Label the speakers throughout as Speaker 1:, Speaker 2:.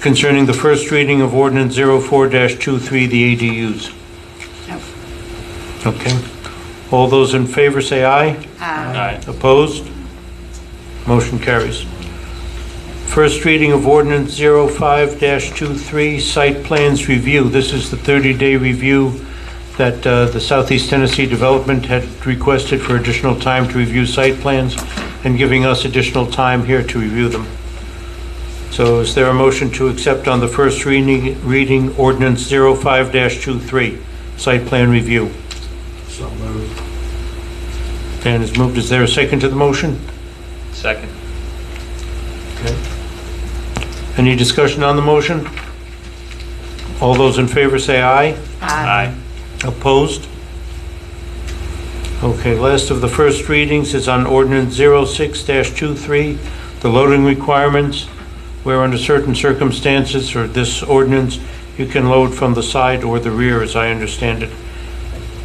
Speaker 1: concerning the first reading of ordinance 04-23, the ADUs.
Speaker 2: No.
Speaker 1: Okay. All those in favor say aye.
Speaker 2: Aye.
Speaker 3: Aye.
Speaker 1: Opposed? Motion carries. First reading of ordinance 05-23, site plans review. This is the 30-day review that uh, the Southeast Tennessee Development had requested for additional time to review site plans and giving us additional time here to review them. So is there a motion to accept on the first reading, reading ordinance 05-23, site plan review?
Speaker 3: So moved.
Speaker 1: Dan has moved. Is there a second to the motion?
Speaker 3: Second.
Speaker 1: Any discussion on the motion? All those in favor say aye.
Speaker 3: Aye.
Speaker 1: Opposed? Okay, last of the first readings is on ordinance 06-23, the loading requirements, where under certain circumstances for this ordinance, you can load from the side or the rear, as I understand it.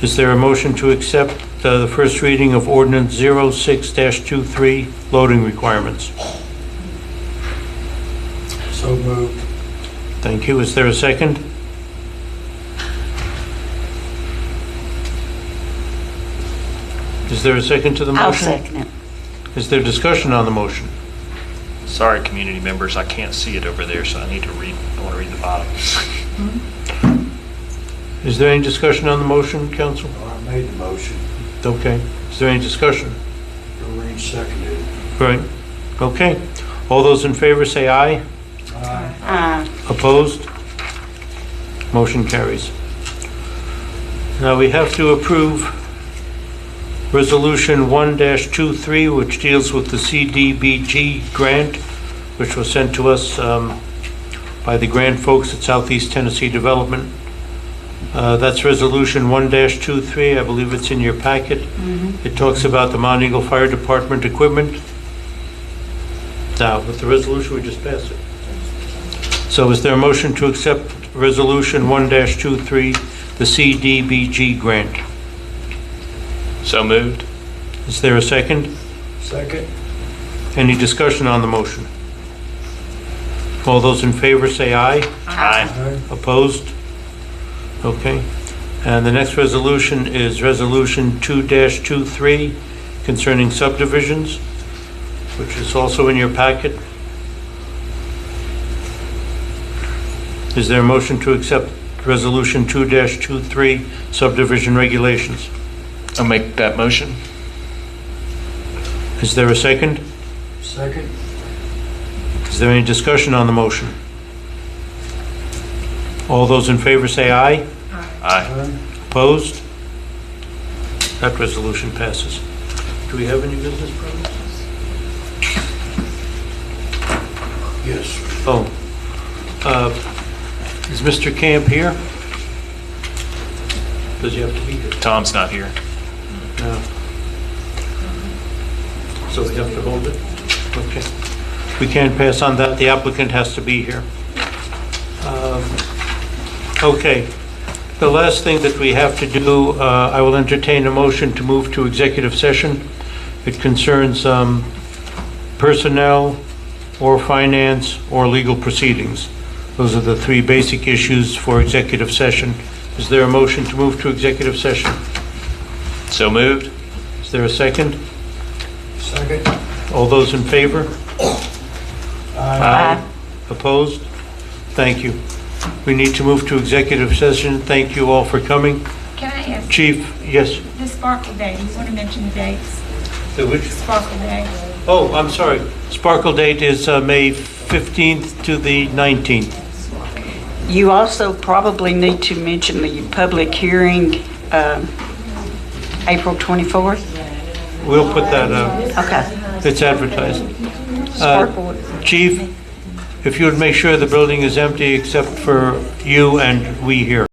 Speaker 1: Is there a motion to accept uh, the first reading of ordinance 06-23, loading requirements?
Speaker 3: So moved.
Speaker 1: Thank you. Is there a second? Is there a second to the motion?
Speaker 2: I'll second it.
Speaker 1: Is there discussion on the motion?
Speaker 3: Sorry, community members, I can't see it over there, so I need to read, I want to read the bottom.
Speaker 1: Is there any discussion on the motion, council?
Speaker 4: I made the motion,
Speaker 1: Okay. Is there any discussion?
Speaker 4: Doreen seconded it.
Speaker 1: Right. Okay. All those in favor say aye.
Speaker 2: Aye.
Speaker 1: Opposed? Motion carries. Now, we have to approve Resolution 1-23, which deals with the CDBG grant, which was sent to us um, by the grant folks at Southeast Tennessee Development. Uh, That's Resolution 1-23, I believe it's in your packet. It talks about the Mount Eagle Fire Department equipment. Now, with the resolution, we just passed it. So is there a motion to accept Resolution 1-23, the CDBG grant?
Speaker 3: So moved.
Speaker 1: Is there a second?
Speaker 4: Second?
Speaker 1: Any discussion on the motion? All those in favor say aye.
Speaker 3: Aye.
Speaker 4: Aye.
Speaker 1: Opposed? Okay. And the next resolution is Resolution 2-23 concerning subdivisions, which is also in your packet. Is there a motion to accept Resolution 2-23 subdivision regulations?
Speaker 3: I'll make that motion.
Speaker 1: Is there a second?
Speaker 4: Second?
Speaker 1: Is there any discussion on the motion? All those in favor say aye.
Speaker 3: Aye.
Speaker 4: Aye.
Speaker 1: Opposed? That resolution passes. Do we have any business problems?
Speaker 4: Yes.
Speaker 1: Oh, uh, is Mr. Camp here? Does he have to be here?
Speaker 3: Tom's not here.
Speaker 1: No. So we have to hold it? Okay. We can't pass on that, the applicant has to be here. Um, Okay. The last thing that we have to do, uh, I will entertain a motion to move to executive session. It concerns um, personnel or finance or legal proceedings. Those are the three basic issues for executive session. Is there a motion to move to executive session?
Speaker 3: So moved.
Speaker 1: Is there a second?
Speaker 4: Second?
Speaker 1: All those in favor?
Speaker 2: Aye.
Speaker 1: Opposed? Thank you. We need to move to executive session. Thank you all for coming.
Speaker 5: Can I ask,
Speaker 1: Chief, yes?
Speaker 5: the Sparkle Day, you want to mention the dates? Sparkle Day,
Speaker 1: Oh, I'm sorry. Sparkle date is uh, May 15th to the 19th.
Speaker 2: You also probably need to mention the public hearing, um, April 24th.
Speaker 1: We'll put that out.
Speaker 2: Okay.
Speaker 1: It's advertised. Uh,
Speaker 2: Sparkle.
Speaker 1: Chief, if you would make sure the building is empty except for you and we here.